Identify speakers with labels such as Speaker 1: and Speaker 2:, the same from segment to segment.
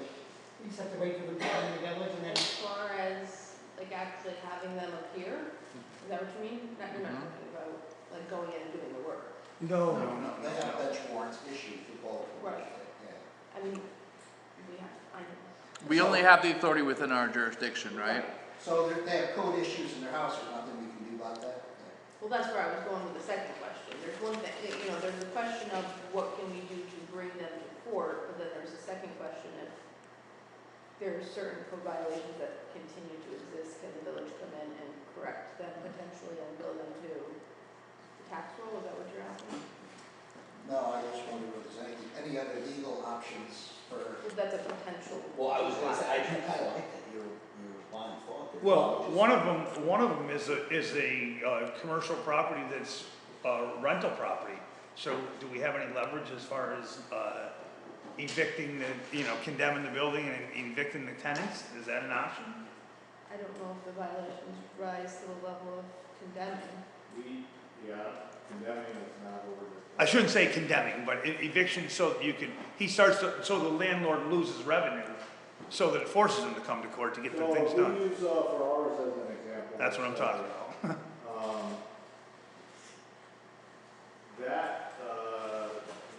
Speaker 1: You just have to wait for the time to get it and then,
Speaker 2: As far as, like, actually having them appear, is that what you mean? Not, you're not talking about, like, going in and doing the work.
Speaker 3: No,
Speaker 4: No, no,
Speaker 5: That,
Speaker 4: no.
Speaker 5: that's warrants issued for both. of them,
Speaker 2: Right.
Speaker 5: Yeah.
Speaker 2: I mean, we have, I know.
Speaker 4: We only have the authority within our jurisdiction, right?
Speaker 5: So there- they have code issues in their house, there's nothing we can do about that? Yeah.
Speaker 2: Well, that's where I was going with the second question. There's one thing, you know, there's the question of what can we do to bring them to court, but then there's a second question if there are certain code violations that continue to exist, can the village come in and correct them potentially and bill them to the tax roll? Is that what you're asking?
Speaker 5: No, I just wonder if there's any, any other legal options for,
Speaker 2: Well, That's a potential.
Speaker 6: Well, I was gonna say, I do kinda like that your, your line of thought there.
Speaker 3: well, one of them, one of them is a, is a, uh, commercial property that's, uh, rental property. So do we have any leverage as far as, uh, evicting the, you know, condemning the building and evicting the tenants? Is that an option?
Speaker 2: I don't know if the violations rise to the level of condemning.
Speaker 7: We, yeah, condemning is not over the.
Speaker 3: I shouldn't say condemning, but e- eviction so that you can, he starts, to- so the landlord loses revenue, so that it forces him to come to court to get the things
Speaker 7: So
Speaker 3: done.
Speaker 7: we use, uh, Ferraris as an example.
Speaker 3: That's what I'm talking about.
Speaker 7: Um, That, uh,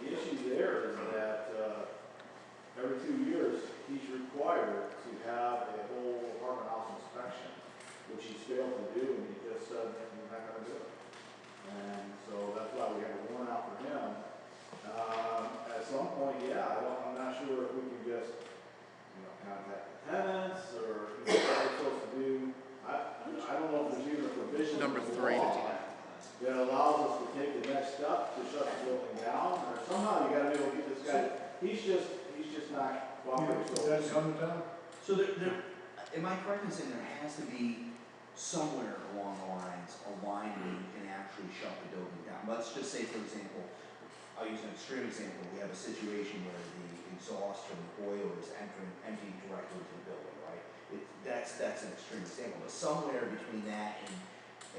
Speaker 7: the issue there is that, uh, every two years, he's required to have a whole apartment house inspection, which he's failed to do, and he just said, you're not gonna do it. And so that's why we have a warrant out for him. Um, at some point, yeah, I don't, I'm not sure if we can just, you know, contact the tenants, or, you know, what we're supposed to do. I, I don't know if there's even a provision in
Speaker 4: Number
Speaker 7: the
Speaker 4: three.
Speaker 7: law that allows us to take the next step to shut the building down, or somehow you gotta be able to get this guy, he's just, he's just not cooperating. so-
Speaker 6: So there, there, am I correct in saying there has to be somewhere along the lines, a line where you can actually shut the building down? Let's just say, for example, I'll use an extreme example, we have a situation where the exhaust from the boiler is entering, emptying directly into the building, right? It, that's, that's an extreme example, but somewhere between that and,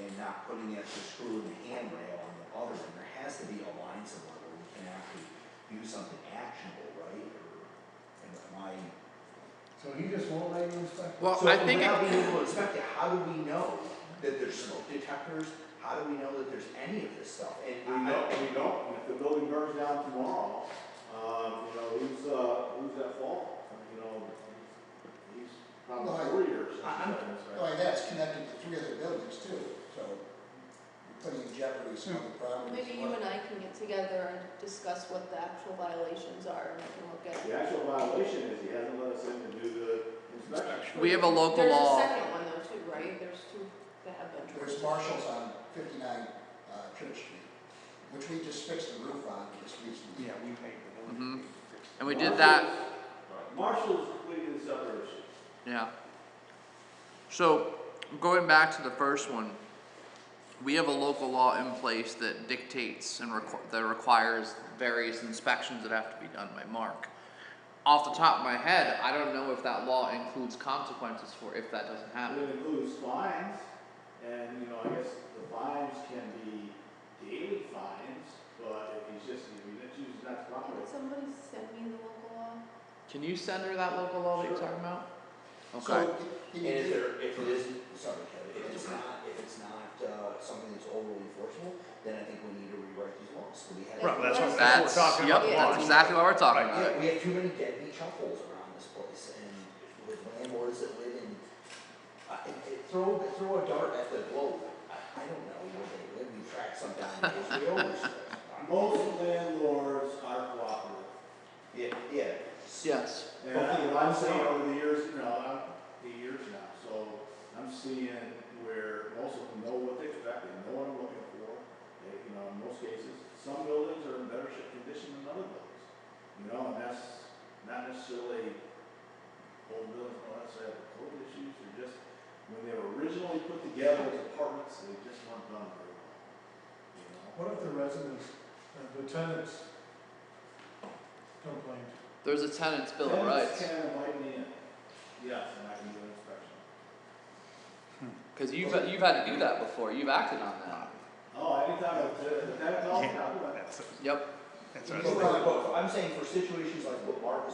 Speaker 6: and not putting the extra screw in the handrail on the other end, there has to be a line somewhere where we can actually do something actionable, right? Or, and am I
Speaker 5: So he just won't let you inspect?
Speaker 4: Well,
Speaker 6: so
Speaker 4: I think,
Speaker 6: without
Speaker 4: it-
Speaker 6: being able to inspect it, how do we know that there's smoke detectors? How do we know that there's any of this stuff?
Speaker 7: We
Speaker 6: And I,
Speaker 7: don't, we don't, and if the building burns down tomorrow, um, you know, who's, uh, who's at fault? You know, he's probably
Speaker 5: Well, I-
Speaker 7: four years
Speaker 6: I-
Speaker 7: since
Speaker 6: I'm-
Speaker 7: he's been inside.
Speaker 5: Like, that's connected to three other buildings too, so you're putting in jeopardy some other properties.
Speaker 2: Maybe you and I can get together and discuss what the actual violations are and I can look at.
Speaker 7: The actual violation is he hasn't let us in to do the inspection.
Speaker 4: we have a local
Speaker 2: There's a
Speaker 4: law,
Speaker 2: second one though too, right? There's two that have been. tried.
Speaker 5: There's marshals on fifty-nine, uh, Church Street, which we just fixed the roof on just recently.
Speaker 3: Yeah, we paid the building.
Speaker 4: Mm-hmm. and we did that,
Speaker 7: Marshall's completely separate issue.
Speaker 4: yeah. So, going back to the first one, we have a local law in place that dictates and requ- that requires various inspections that have to be done by Mark. Off the top of my head, I don't know if that law includes consequences for if that doesn't happen.
Speaker 7: It includes fines, and, you know, I guess the fines can be daily fines, but if he's just, if he chooses not to
Speaker 2: Can
Speaker 7: cooperate.
Speaker 2: somebody send me the local law?
Speaker 4: Can you send her that local law that you're talking about? Okay,
Speaker 5: So, can
Speaker 6: and
Speaker 5: you
Speaker 6: if
Speaker 5: do-
Speaker 6: there, if it isn't, sorry, Kevin, if it's not, if it's not, uh, something that's overly enforceable, then I think we need to rewrite these laws, so we have.
Speaker 3: Right, that's what, that's
Speaker 4: Mm-hmm. that's,
Speaker 3: what we're talking
Speaker 4: yep,
Speaker 3: about.
Speaker 2: Yeah.
Speaker 4: that's exactly what we're talking about.
Speaker 6: Yeah, we have too many deadbeat chuckles around this place, and with landlords that live in, I, I- I- throw, throw a dart at the globe, I, I don't know where they live, we track some down in Israel, we track some down-
Speaker 7: Most landlords are cooperative.
Speaker 6: Yeah, yeah.
Speaker 4: Yes.
Speaker 7: And I, what I'm seeing over the years, you know, I'm, the years now, so I'm seeing where most of them know what they expect, they know what I'm looking for. They, you know, in most cases, some buildings are in better shape condition than other buildings. You know, and that's not necessarily old buildings, not necessarily have code issues, they're just, when they were originally put together as apartments, they just weren't done very well. You know?
Speaker 8: What if the residents, uh, the tenants complained?
Speaker 4: There's a tenant's bill of
Speaker 7: Tenants
Speaker 4: rights,
Speaker 7: can invite me in, yes, and I can do an inspection.
Speaker 4: cause you've, you've had to do that before, you've acted on that,
Speaker 7: Oh, anytime I did it, that, that,
Speaker 3: Yeah. That's,
Speaker 4: yep.
Speaker 3: that's what I
Speaker 6: But
Speaker 3: was thinking.
Speaker 6: but I'm saying for situations like what Mark was